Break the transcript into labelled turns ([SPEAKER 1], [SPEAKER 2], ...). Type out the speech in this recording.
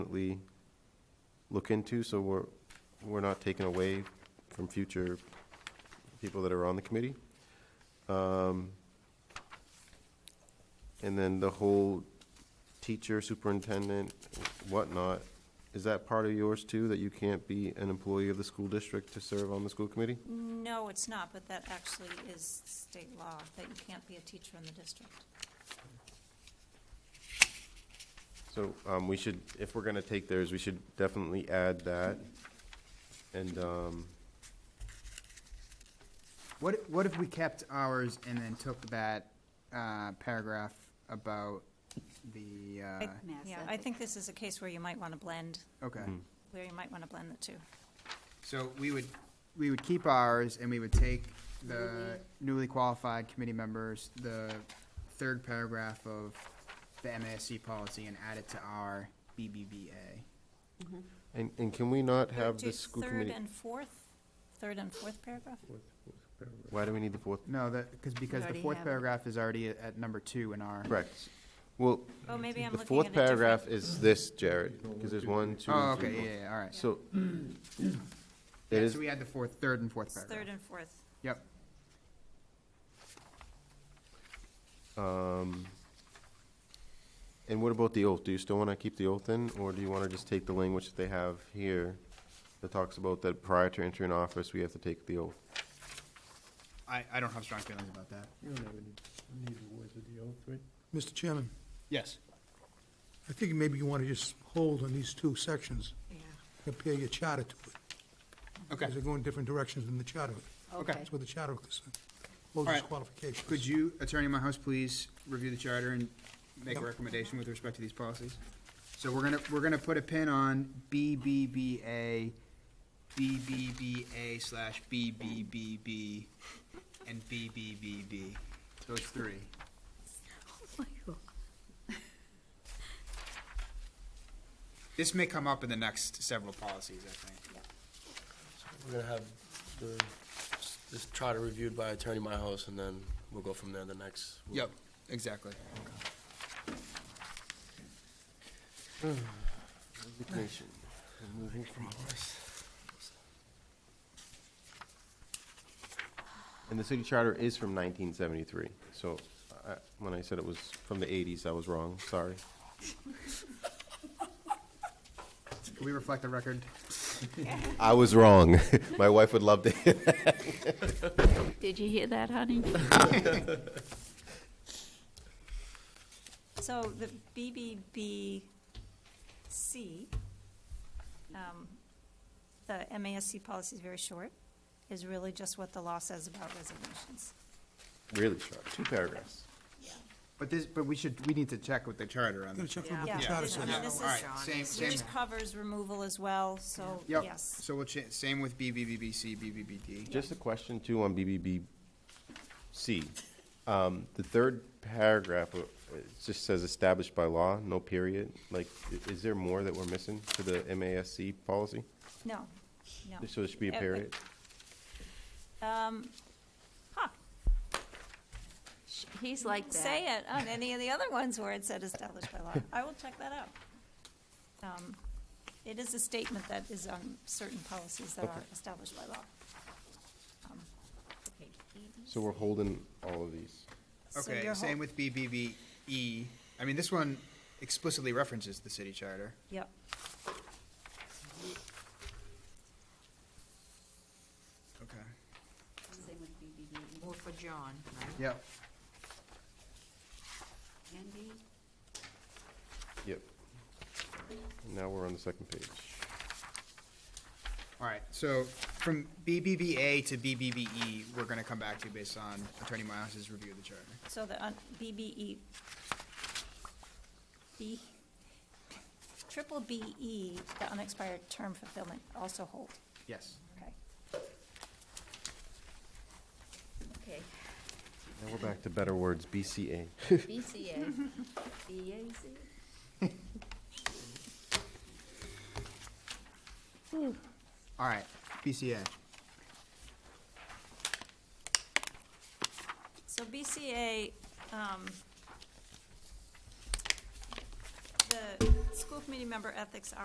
[SPEAKER 1] definitely look into, so we're, we're not taken away from future people that are on the committee. Um, And then the whole teacher, superintendent, whatnot, is that part of yours too, that you can't be an employee of the school district to serve on the school committee?
[SPEAKER 2] No, it's not, but that actually is state law, that you can't be a teacher in the district.
[SPEAKER 1] So um, we should, if we're going to take theirs, we should definitely add that. And, um,
[SPEAKER 3] What, what if we kept ours and then took that uh, paragraph about the, uh,
[SPEAKER 2] Yeah, I think this is a case where you might want to blend,
[SPEAKER 3] okay.
[SPEAKER 1] Mm-hmm.
[SPEAKER 2] where you might want to blend the two.
[SPEAKER 3] So we would, we would keep ours and we would take the newly qualified committee members, the third paragraph of the MASC policy and add it to our BBVA.
[SPEAKER 1] and and can we not have
[SPEAKER 2] Do
[SPEAKER 1] the school
[SPEAKER 2] Third
[SPEAKER 1] committee?
[SPEAKER 2] and fourth, third and fourth paragraph?
[SPEAKER 1] Why do we need the fourth?
[SPEAKER 3] No, that, because, because the
[SPEAKER 4] already
[SPEAKER 3] fourth
[SPEAKER 4] have it.
[SPEAKER 3] paragraph is already at- at number two in our.
[SPEAKER 1] Correct. Well,
[SPEAKER 2] Oh, maybe
[SPEAKER 1] the
[SPEAKER 2] I'm looking at a different.
[SPEAKER 1] fourth paragraph is this, Jared, because there's one, two,
[SPEAKER 3] Oh,
[SPEAKER 1] and
[SPEAKER 3] okay,
[SPEAKER 1] three.
[SPEAKER 3] yeah, yeah, all right.
[SPEAKER 1] So
[SPEAKER 3] Yeah,
[SPEAKER 1] it is,
[SPEAKER 3] So we had the fourth, third and fourth
[SPEAKER 2] It's Third
[SPEAKER 3] paragraph.
[SPEAKER 2] and fourth.
[SPEAKER 3] Yep.
[SPEAKER 1] um, and what about the oath? Do you still want to keep the oath in, or do you want to just take the language that they have here that talks about that prior to entering office, we have to take the oath?
[SPEAKER 3] I, I don't have strong feelings about that.
[SPEAKER 5] You don't have any, need the words of the oath, right?
[SPEAKER 6] Mr. Chairman,
[SPEAKER 3] Yes.
[SPEAKER 6] I think maybe you want to just hold on these two sections, compare your charter to it.
[SPEAKER 3] Okay,
[SPEAKER 6] Because they're going different directions in the charter.
[SPEAKER 3] okay.
[SPEAKER 6] That's where the charter is, hold
[SPEAKER 3] All
[SPEAKER 6] these
[SPEAKER 3] right.
[SPEAKER 6] qualifications.
[SPEAKER 3] Could you, Attorney House, please review the charter and make a
[SPEAKER 6] Yep.
[SPEAKER 3] recommendation with respect to these policies? So we're gonna, we're gonna put a pin on BBBA, BBBA slash BBBB, and BBBB. Those three. This may come up in the next several policies, I think.
[SPEAKER 5] We're gonna have the, this charter reviewed by Attorney Myhouse, and then we'll go from there the next.
[SPEAKER 3] Yep, exactly.
[SPEAKER 1] Resignation. Removing from And the city charter is from 1973, so I- when I said it was from the 80s, I was wrong, sorry.
[SPEAKER 3] Can we reflect the record?
[SPEAKER 1] I was wrong. My wife would love to hear that.
[SPEAKER 4] Did you hear that, honey?
[SPEAKER 2] So the BBBC, um, the MASC policy is very short, is really just what the law says about resignations.
[SPEAKER 1] Really short, two paragraphs.
[SPEAKER 3] But this, but we should, we need to check with the charter on
[SPEAKER 6] Gotta
[SPEAKER 3] this.
[SPEAKER 6] check with what
[SPEAKER 2] Yeah.
[SPEAKER 6] the
[SPEAKER 2] Yeah.
[SPEAKER 6] charter
[SPEAKER 2] Yeah.
[SPEAKER 6] says.
[SPEAKER 2] Yeah. this
[SPEAKER 3] All right,
[SPEAKER 2] is-
[SPEAKER 3] same, same.
[SPEAKER 2] Which covers removal as well, so,
[SPEAKER 3] Yep,
[SPEAKER 2] yes.
[SPEAKER 3] so we'll cha, same with BBBBC, BBBD.
[SPEAKER 1] Just a question too on BBBC. Um, the third paragraph, uh, it just says established by law, no period. Like, i- is there more that we're missing to the MASC policy?
[SPEAKER 2] No, no.
[SPEAKER 1] So there should be a
[SPEAKER 2] Uh,
[SPEAKER 1] period?
[SPEAKER 2] Um, huh,
[SPEAKER 4] He's like that.
[SPEAKER 2] say it on any of the other ones where it said established by law. I will check that out. Um, It is a statement that is on certain policies that are established by law. Um,
[SPEAKER 1] So we're holding all of these.
[SPEAKER 2] so
[SPEAKER 3] Okay,
[SPEAKER 2] your
[SPEAKER 3] same
[SPEAKER 2] whole-
[SPEAKER 3] with BBBE. E. I mean, this one explicitly references the city charter.
[SPEAKER 2] Yep.
[SPEAKER 3] Okay.
[SPEAKER 4] More for John, right?
[SPEAKER 3] Yep.
[SPEAKER 4] Andy?
[SPEAKER 1] Yep. Now we're on the second page.
[SPEAKER 3] All right, so from BBBA to BBBE, E, we're gonna come back to based on Attorney Miles's review of the charter.
[SPEAKER 2] So the un- BBE, B, triple BE, the unexpired term fulfillment, also hold.
[SPEAKER 3] Yes.
[SPEAKER 2] Okay.
[SPEAKER 4] Okay,
[SPEAKER 1] Now we're back to better words, BCA.
[SPEAKER 4] BCA, BAC.
[SPEAKER 3] All right, BCA.
[SPEAKER 2] So BCA, um, the school committee member ethics